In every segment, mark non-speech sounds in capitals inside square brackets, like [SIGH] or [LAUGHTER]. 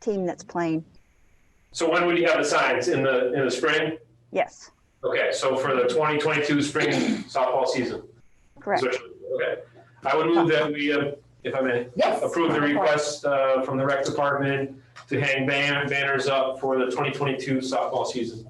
team that's playing. So when would you have the signs? In the, in the spring? Yes, Okay, so for the 2022 spring softball season? correct. Is what- Okay. I would move that we, uh, if I may, Yes. approve the request uh, from the rec department to hang ban- banners up for the 2022 softball season.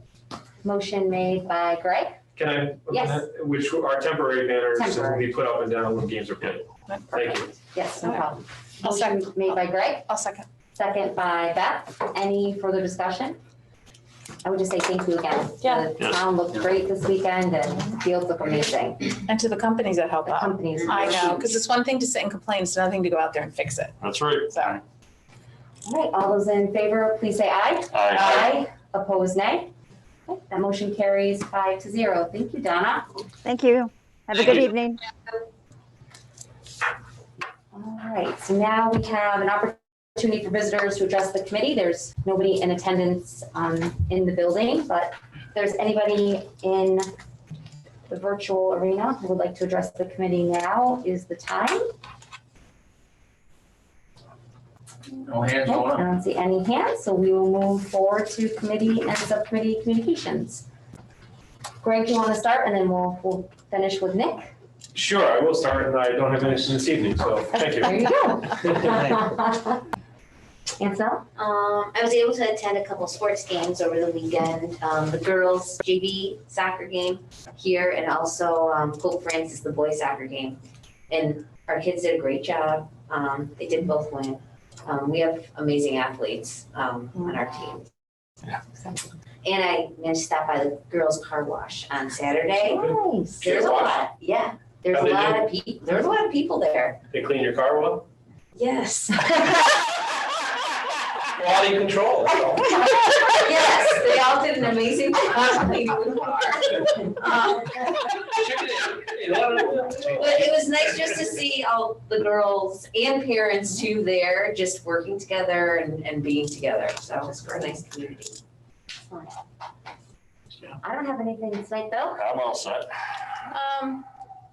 Motion made by Greg, Can I? Yes. Which are temporary banners that will Temporary. be put up and down when games are played. Thank you. yes, no Okay. problem. I'll second. Motion made by Greg, I'll second. second by Beth. Any further discussion? I would just say thank you again. Yeah. The town looked great this weekend and fields look amazing. And to the companies that help The out. companies. I know, because it's one thing to sit and complain, it's another thing to go out there and fix it. That's right. So, All right, all those in favor, please say aye. Aye. Opposed, nay. Okay, That motion carries five to zero. Thank you, Donna. Thank you. Have a good evening. All right, so now we have an opportunity for visitors to address the committee. There's nobody in attendance um, in the building, but if there's anybody in the virtual arena who would like to address the committee now is the time. No hands Okay, going I up. don't see any hands, so we will move forward to committee and subcommittee communications. Greg, do you want to start and then we'll, we'll finish with Nick? Sure, I will start, and I don't have anything this evening, so thank you. There you go. Ansel? Um, I was able to attend a couple sports games over the weekend. Um, the girls JV soccer game here, and also um, Pope Francis the boys soccer game. And our kids did a great job. Um, they did both win. Um, we have amazing athletes um, on our team. And I managed to stop by the girls' car wash on Saturday. Nice. There's a wash? lot. Yeah, there's a How'd they lot of people. There's a lot of people there. They clean your car well? Yes. Quality [LAUGHS] control. yes, they all did an amazing job [LAUGHS] cleaning the car. Um, But it was nice just to see all the girls and parents too there, just working together and, and being together. So it was a nice community. I don't have anything tonight though. I'm all set. um,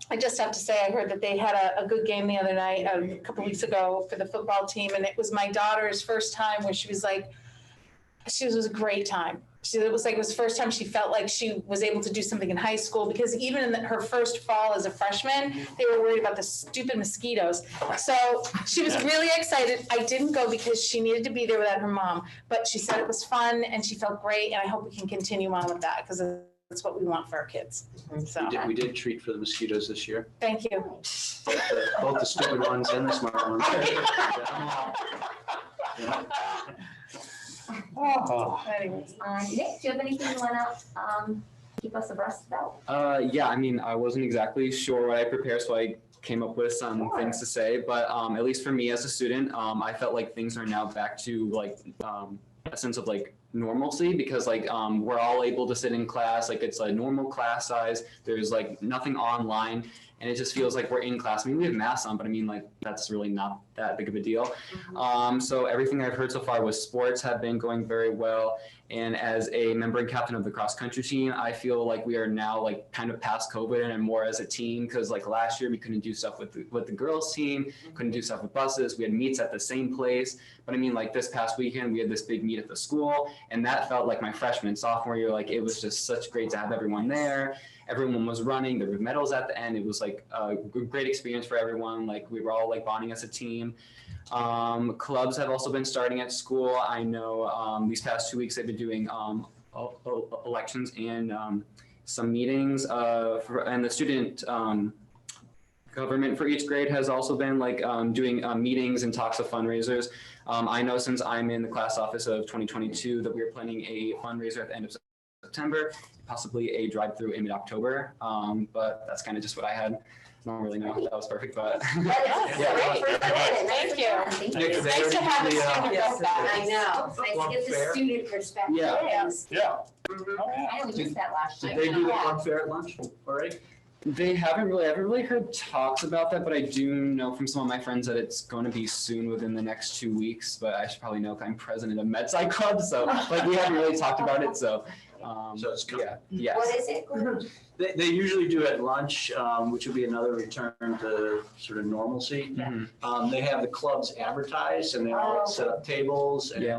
I just have to say, I heard that they had a, a good game the other night, um, a couple weeks ago for the football team, and it was my daughter's first time where she was like, she was, it was a great time. She, it was like, it was the first time she felt like she was able to do something in high school, because even in the- her first fall as a freshman, they were worried about the stupid mosquitoes. So she was really excited. I didn't go because she needed to be there without her mom, but she said it was fun and she felt great, and I hope we can continue on with that, because that's what we want for our kids. So, We did, we did treat for the mosquitoes this year, thank you. the- both the stupid ones and the smart ones. Anyways. Uh, Nick, do you have anything you wanna, um, keep us abreast about? [LAUGHS] Uh, yeah, I mean, I wasn't exactly sure what I prepared, so I came up with some Sure. things to say. But um, at least for me as a student, um, I felt like things are now back to like um, a sense of like normalcy because like um, we're all able to sit in class, like it's a normal class size. There's like nothing online, and it just feels like we're in class. I mean, we have masks on, but I mean, like that's really not that big of a deal. Um, so everything I've heard so far was sports have been going very well. And as a member and captain of the cross country team, I feel like we are now like kind of past COVID and more as a team because like last year we couldn't do stuff with the, with the girls team, couldn't do stuff with buses. We had meets at the same place, but I mean like this past weekend we had this big meet at the school, and that felt like my freshman and sophomore year. Like it was just such great to have everyone there. Everyone was running. There were medals at the end. It was like a g- great experience for everyone. Like we were all like bonding as a team. Um, clubs have also been starting at school. I know um, these past two weeks they've been doing um, el- el- elections and um, some meetings. Uh, for, and the student um, government for each grade has also been like um, doing uh, meetings and talks of fundraisers. Um, I know since I'm in the class office of 2022 that we are planning a fundraiser at the end of September, possibly a drive-through in mid-October. Um, but that's kind of just what I had. I don't really know if that was perfect, but. [LAUGHS] That's great. Thank you. Thank you. Nick, is Nice to have a everybody, uh, student about that. I know. It's nice to get the Fair. student perspective. Yeah. Yes. Yeah. [LAUGHS] I know we missed that last year. Did they do the fun fair at lunch already? They haven't really, I haven't really heard talks about that, but I do know from some of my friends that it's going to be soon within the next two weeks. But I should probably know 'cause I'm president of MedSci Club, so like we haven't really talked about it. So, um, So it's coming. yeah, yes. What is it? They, they usually do at lunch, um, which would be another return to sort of normalcy. Mhm. Um, they have the clubs advertised and they all set up tables and Yeah.